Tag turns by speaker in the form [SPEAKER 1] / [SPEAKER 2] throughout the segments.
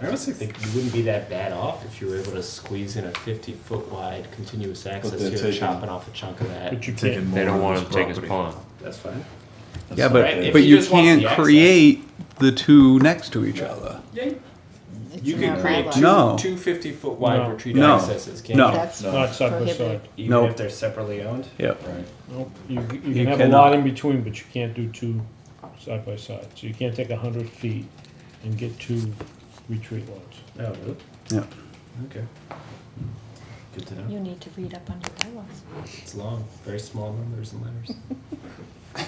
[SPEAKER 1] I honestly think you wouldn't be that bad off if you were able to squeeze in a fifty foot wide continuous access.
[SPEAKER 2] they're
[SPEAKER 1] You're
[SPEAKER 2] taking-
[SPEAKER 1] chopping off a chunk of that.
[SPEAKER 3] But you
[SPEAKER 4] They
[SPEAKER 3] can't,
[SPEAKER 4] don't want to take his pond.
[SPEAKER 1] That's fine.
[SPEAKER 5] Yeah,
[SPEAKER 1] Right,
[SPEAKER 5] but,
[SPEAKER 1] if
[SPEAKER 5] but
[SPEAKER 1] he
[SPEAKER 5] you
[SPEAKER 1] just wants
[SPEAKER 5] can't
[SPEAKER 1] the access.
[SPEAKER 5] create the two next to each other.
[SPEAKER 1] Yeah,
[SPEAKER 6] It's
[SPEAKER 1] you
[SPEAKER 6] in
[SPEAKER 1] can
[SPEAKER 6] our
[SPEAKER 1] create
[SPEAKER 6] bylaws.
[SPEAKER 1] two,
[SPEAKER 5] No.
[SPEAKER 1] two 50 foot wide
[SPEAKER 3] No.
[SPEAKER 1] retreat
[SPEAKER 5] No.
[SPEAKER 1] accesses, can't
[SPEAKER 5] No.
[SPEAKER 1] you?
[SPEAKER 6] That's
[SPEAKER 2] No.
[SPEAKER 3] not side by
[SPEAKER 6] prohibited.
[SPEAKER 3] side.
[SPEAKER 1] Even
[SPEAKER 5] No.
[SPEAKER 1] if they're separately owned.
[SPEAKER 5] Yep.
[SPEAKER 2] Right.
[SPEAKER 3] Nope. You, you
[SPEAKER 5] You
[SPEAKER 3] can have a
[SPEAKER 5] cannot.
[SPEAKER 3] lot in between, but you can't do two side by side. So you can't take a hundred feet and get two retreat lots.
[SPEAKER 1] Oh, really?
[SPEAKER 5] Yeah.
[SPEAKER 1] Okay. Good to know.
[SPEAKER 6] You need to read up on your bylaws.
[SPEAKER 1] It's long, very small numbers and letters.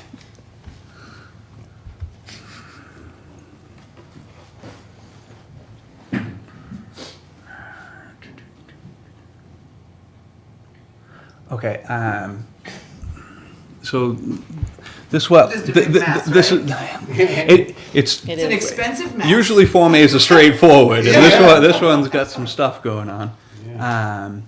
[SPEAKER 5] Okay. Um, so this well,
[SPEAKER 7] This is a
[SPEAKER 5] th-
[SPEAKER 7] big
[SPEAKER 5] th-
[SPEAKER 7] mess,
[SPEAKER 5] this is it, it's
[SPEAKER 6] It
[SPEAKER 7] It's an
[SPEAKER 6] is.
[SPEAKER 7] expensive mess.
[SPEAKER 5] usually Form A is a straightforward, and this one this one's got some stuff going on. Um,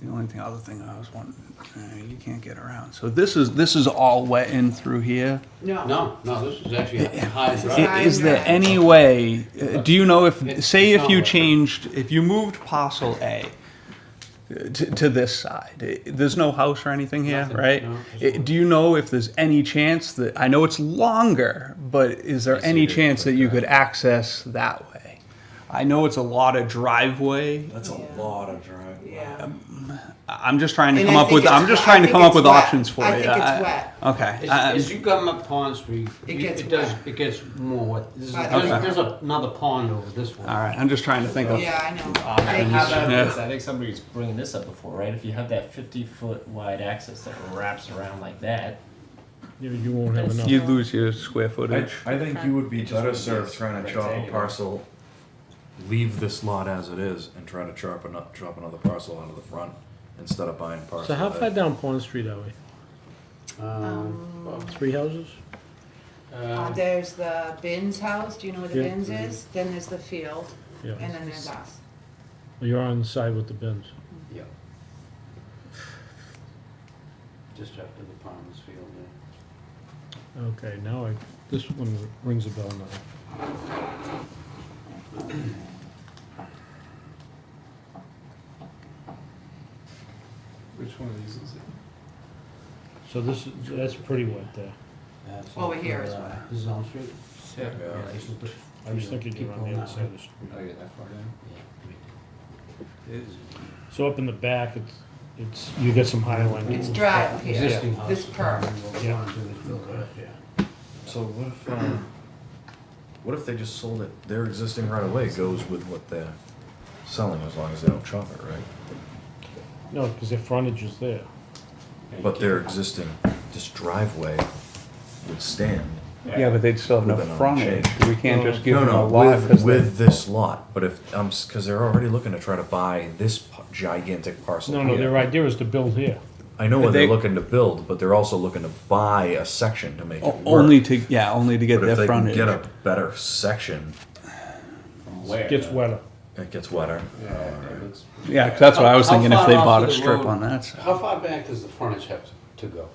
[SPEAKER 5] the only thing, other thing I was wanting, uh, you can't get around. So this is this is all wet in through here.
[SPEAKER 7] No.
[SPEAKER 8] No, no, this is actually a high
[SPEAKER 5] I-
[SPEAKER 8] drive.
[SPEAKER 5] Is there any way, uh, do you know if, say if you changed, if you moved parcel A uh, to, to this side, eh, there's no house or anything here,
[SPEAKER 8] Nothing,
[SPEAKER 5] right?
[SPEAKER 8] no,
[SPEAKER 5] Eh,
[SPEAKER 8] just-
[SPEAKER 5] Do you know if there's any chance that, I know it's longer, but is there any chance that you could access that way? I know it's a lot of driveway.
[SPEAKER 2] That's a
[SPEAKER 7] Yeah.
[SPEAKER 2] lot of drive.
[SPEAKER 7] Yeah.
[SPEAKER 5] I- I'm just trying to
[SPEAKER 7] And
[SPEAKER 5] um, come
[SPEAKER 7] I
[SPEAKER 5] up
[SPEAKER 7] think
[SPEAKER 5] with,
[SPEAKER 7] it's
[SPEAKER 5] I'm just
[SPEAKER 7] wet.
[SPEAKER 5] trying
[SPEAKER 7] I
[SPEAKER 5] to come up
[SPEAKER 7] think it's
[SPEAKER 5] with
[SPEAKER 7] wet.
[SPEAKER 5] options for Uh, you.
[SPEAKER 7] I think it's
[SPEAKER 5] I-
[SPEAKER 7] wet.
[SPEAKER 5] Okay. I-
[SPEAKER 8] As as you come up Pond Street,
[SPEAKER 7] It
[SPEAKER 8] you-
[SPEAKER 7] gets
[SPEAKER 8] Um, it does,
[SPEAKER 7] wet.
[SPEAKER 8] it gets more wet. This is-
[SPEAKER 7] Okay.
[SPEAKER 8] There's there's another pond over this one.
[SPEAKER 5] All right, I'm just trying to think of.
[SPEAKER 7] Yeah, I know.
[SPEAKER 1] How
[SPEAKER 7] Thank
[SPEAKER 1] about
[SPEAKER 5] Yeah.
[SPEAKER 1] this? I think somebody's bringing this up before, right? If you have that 50 foot wide axis that wraps around like that,
[SPEAKER 3] You, you won't have enough.
[SPEAKER 5] You lose your square
[SPEAKER 2] I,
[SPEAKER 5] footage.
[SPEAKER 2] I think you would be better served trying to chop a
[SPEAKER 1] rectangular.
[SPEAKER 2] parcel, leave this lot as it is, and try to chop another, chop another parcel onto the front instead of buying parcel.
[SPEAKER 3] So how
[SPEAKER 2] A.
[SPEAKER 3] far down Pond Street are we?
[SPEAKER 8] Um, well,
[SPEAKER 3] Three houses?
[SPEAKER 7] you. Uh,
[SPEAKER 8] uh,
[SPEAKER 7] There's the Bins house, do you know where the
[SPEAKER 3] Yeah.
[SPEAKER 7] Bins is? Then there's the field,
[SPEAKER 3] Yeah. Oh,
[SPEAKER 7] and then there's us.
[SPEAKER 3] You're on the side with the bins.
[SPEAKER 8] yeah. Just after the Palmer's Field, yeah.
[SPEAKER 3] Okay, now I, this one rings a bell now.
[SPEAKER 1] which one of these is it?
[SPEAKER 3] So this, is that's pretty wet there.
[SPEAKER 8] That's
[SPEAKER 7] Over
[SPEAKER 8] after,
[SPEAKER 7] here as
[SPEAKER 8] uh,
[SPEAKER 7] well.
[SPEAKER 8] This is Elm Street?
[SPEAKER 1] Yeah.
[SPEAKER 8] this is the
[SPEAKER 3] I was
[SPEAKER 8] field.
[SPEAKER 3] thinking
[SPEAKER 8] Keep
[SPEAKER 3] you're on
[SPEAKER 8] going
[SPEAKER 3] the other
[SPEAKER 8] that
[SPEAKER 3] side
[SPEAKER 8] way.
[SPEAKER 3] of the street.
[SPEAKER 1] Oh, you're that far down?
[SPEAKER 8] Yeah, I mean,
[SPEAKER 3] So up in the back, it's, it's, you get some high line.
[SPEAKER 7] It's dry up here.
[SPEAKER 8] Existing house.
[SPEAKER 7] This perk.
[SPEAKER 3] Yeah.
[SPEAKER 2] So what if, um, what if they just sold it? Their existing right away goes with what they're selling, as long as they don't chop it, right?
[SPEAKER 3] No, because their frontage is there.
[SPEAKER 2] But their existing, this driveway would stand.
[SPEAKER 5] Yeah, but they'd still have
[SPEAKER 2] Would've been
[SPEAKER 5] no frontage. We can't just give
[SPEAKER 2] No,
[SPEAKER 5] them a
[SPEAKER 2] no,
[SPEAKER 5] lot
[SPEAKER 2] with,
[SPEAKER 5] because
[SPEAKER 2] with this lot, but if, um, cause they're already looking to try to buy this p- gigantic parcel
[SPEAKER 3] No, no,
[SPEAKER 2] here.
[SPEAKER 3] their idea is to build here.
[SPEAKER 2] I know what they're
[SPEAKER 5] They-
[SPEAKER 2] looking to build, but they're also looking to buy a section to make it work.
[SPEAKER 5] only to, yeah, only to get
[SPEAKER 2] But if
[SPEAKER 5] their
[SPEAKER 2] they can
[SPEAKER 5] frontage.
[SPEAKER 2] get a better section,
[SPEAKER 1] Where?
[SPEAKER 3] Gets wetter.
[SPEAKER 2] it gets wetter.
[SPEAKER 1] Yeah, it looks-
[SPEAKER 5] Yeah, 'cause that's what I was
[SPEAKER 8] How- how
[SPEAKER 5] thinking, if
[SPEAKER 8] far
[SPEAKER 5] they
[SPEAKER 8] off
[SPEAKER 5] bought
[SPEAKER 8] of
[SPEAKER 5] a
[SPEAKER 8] the
[SPEAKER 5] strip
[SPEAKER 8] road-
[SPEAKER 5] on that. side.
[SPEAKER 8] How far back does the frontage have to- to go?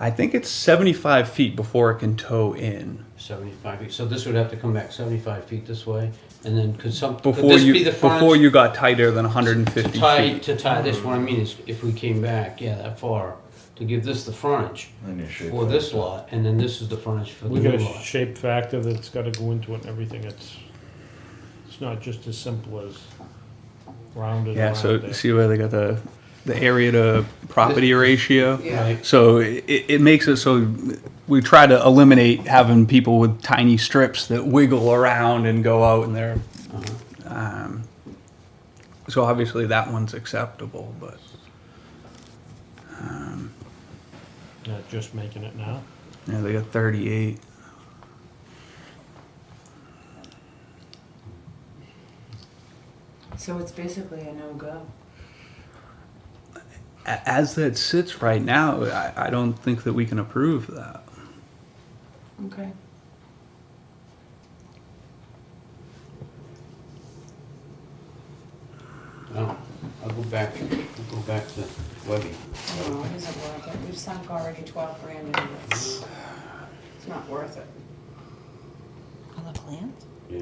[SPEAKER 5] I think it's seventy-five feet before it can tow in.
[SPEAKER 8] 75 feet, so this would have to come back 75 feet this way, and then could some, could
[SPEAKER 5] Before
[SPEAKER 8] this be
[SPEAKER 5] you,
[SPEAKER 8] the front?
[SPEAKER 5] before you got tighter than hundred and
[SPEAKER 8] To
[SPEAKER 5] fifty
[SPEAKER 8] tie,
[SPEAKER 5] feet.
[SPEAKER 8] to tie this, what I mean is, if we came back, yeah, that far, to give this the frontage
[SPEAKER 2] I need to shape
[SPEAKER 8] for
[SPEAKER 2] that.
[SPEAKER 8] this lot, and then this is the frontage for the
[SPEAKER 3] We
[SPEAKER 8] new
[SPEAKER 3] got a
[SPEAKER 8] lot.
[SPEAKER 3] shape factor that's gotta go into it and everything. It's, it's not just as simple as rounded
[SPEAKER 5] Yeah,
[SPEAKER 3] around
[SPEAKER 5] so
[SPEAKER 3] there.
[SPEAKER 5] see where they got the, the area to property ratio?
[SPEAKER 7] Yeah.
[SPEAKER 5] So it, it makes it so we try to eliminate having people with tiny strips that wiggle around and go out and they're. Um, so obviously that one's acceptable, but
[SPEAKER 3] Not just making it now.
[SPEAKER 5] you know, they got 38.
[SPEAKER 7] So it's basically a no-go.
[SPEAKER 5] A- As that sits right now, I, I don't think that we can approve that.
[SPEAKER 7] Okay.
[SPEAKER 8] Oh, I'll go back, I'll go back to Webby.
[SPEAKER 7] No, it isn't worth it. We've sunk already twelve grand into this. It's not worth it.
[SPEAKER 6] On the plans?